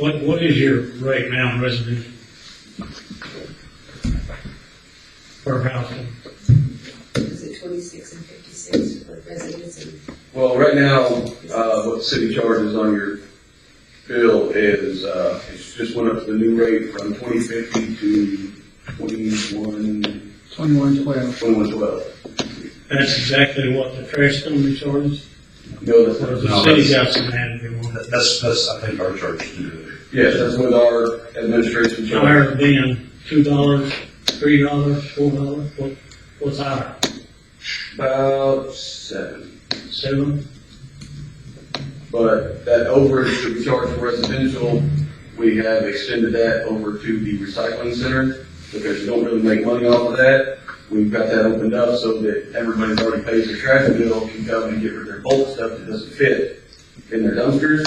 What, what is your rate now in residential? Per household? Is it twenty-six and fifty-six for residents and Well, right now, uh, what the city charges on your bill is, uh, it's just went up to the new rate from twenty fifty to twenty-one, Twenty-one twelve. twenty-one twelve. That's exactly what the trash company charges? No, that's Or not. is the No, city that's- got some added they want? That's, that's, I think, our charge to do Yes, that's what our administration I charges. heard being two dollars, three dollars, four dollars, what, what's our, About seven. seven? But that overage that we charge for residential, we have extended that over to the recycling center because you don't really make money off of that. We've got that opened up so that everybody that already pays their trash bill can come and get rid of their bulk stuff that doesn't fit in their dumpsters.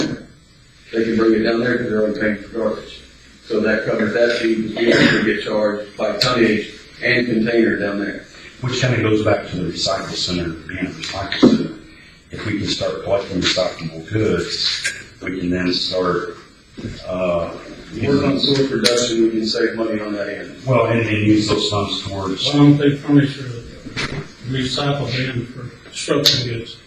They can bring it down there because they're already paying for garbage. So that covers that fee because we actually get charged by tonnage and container down there. Which kind of goes back to the recycle center, being a recycle center. If we can start collecting recyclable goods, we can then start, uh, Work on source reduction, we can save money on that end. well, and, and use those funds towards, Why don't they furnish a recycle bin for structural goods?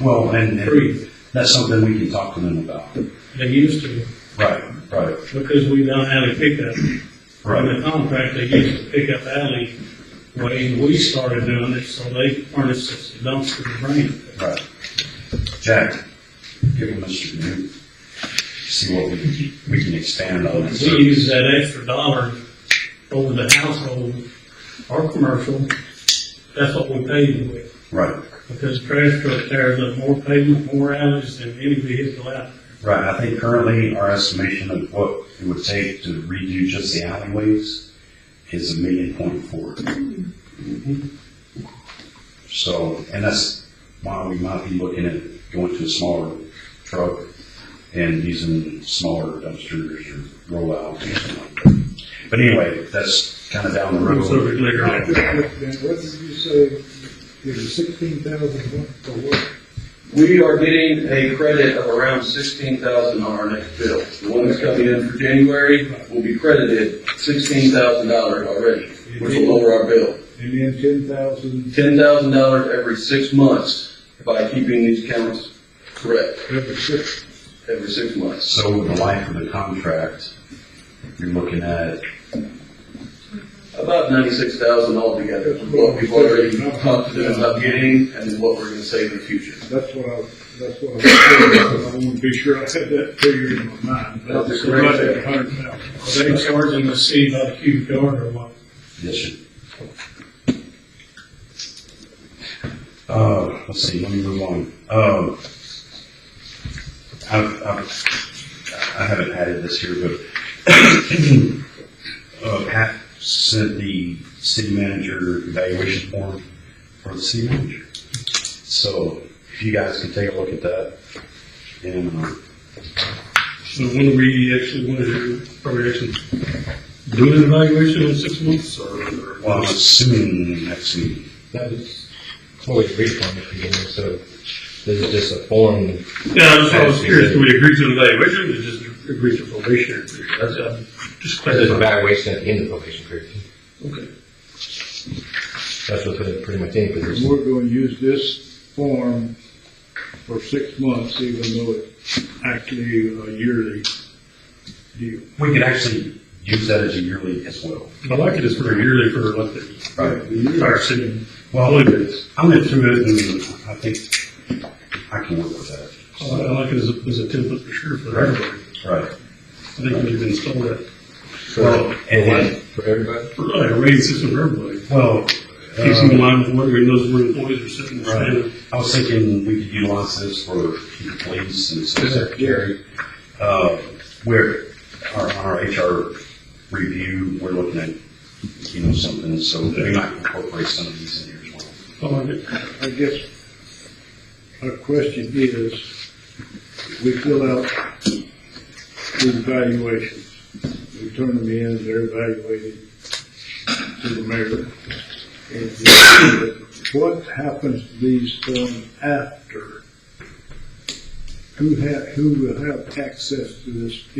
well, and, and Free, that's something we can talk to them about. they used to, Right, right, because we don't have a pickup. In right. the contract, they used to pick up alley way, and we started doing it, so they furnished us a dumpster to bring it. Jack, give them this to do. See what we can, we can expand on. We use that extra dollar over the household or commercial, that's what we paid them with. Right. Because trash truck tears up more pavement, more alleys than any vehicle out. Right, I think currently our estimation of what it would take to redo just the alleyways is a million point four. So, and that's why we might be looking at going to a smaller truck and using smaller dumpsters or rollouts or something like that. But anyway, that's kind of down the road. So we're later on. Then what did you say, it was sixteen thousand what, for what? We are getting a credit of around sixteen thousand on our next bill. The one that's coming in for January will be credited sixteen thousand dollars already, which will lower our bill. And then ten thousand Ten thousand dollars every six months by keeping these counts correct every six, every six months. So with the life of the contract, you're looking at About ninety-six thousand altogether, from what we've already talked to them about getting and what we're gonna save in the future. that's what I, that's what I was saying, I want to be sure I had that figure in my mind. That's a great Right figure. at hundred thousand. Are they charging the city by the cubic yard or what? Yes, sir. Uh, let's see, let me move on. Um, I've, I've, I haven't added this here, but, uh, Pat sent the city manager evaluation form for the city manager. So if you guys can take a look at that and, uh, So when are we actually, when are, are we actually doing an evaluation in six months or? well, I'm assuming next meeting. That was what we agreed on at the beginning, so this is just a form. Yeah, I was, I was curious, do we agree to an evaluation or just agree to probationary period? That's, uh, just There's an clarifying. evaluation at the end of the probation period. Okay. That's what's in pretty much any And position. we're going to use this form for six months, even though it's actually a yearly deal. We could actually use that as a yearly as well. I like it as for yearly for like the Right. entire city. Well, it is. I went through it and I think I can work with I I that. like it as a, as a template for sure for everybody. I Right. think we should install that Well, and, and, For everybody? for like a rating system for everybody. well, Keeps them in uh, line with where we knows where employees are sitting. right. I was thinking we could utilize this for the police and city secretary. Uh, where, our, on our HR review, we're looking at, you know, something, so we might incorporate some of these in here as well. I like it. I guess our question is, we fill out these evaluations, we turn them in, they're evaluated to the mayor. And what happens to these forms after? Who ha, who will have access to this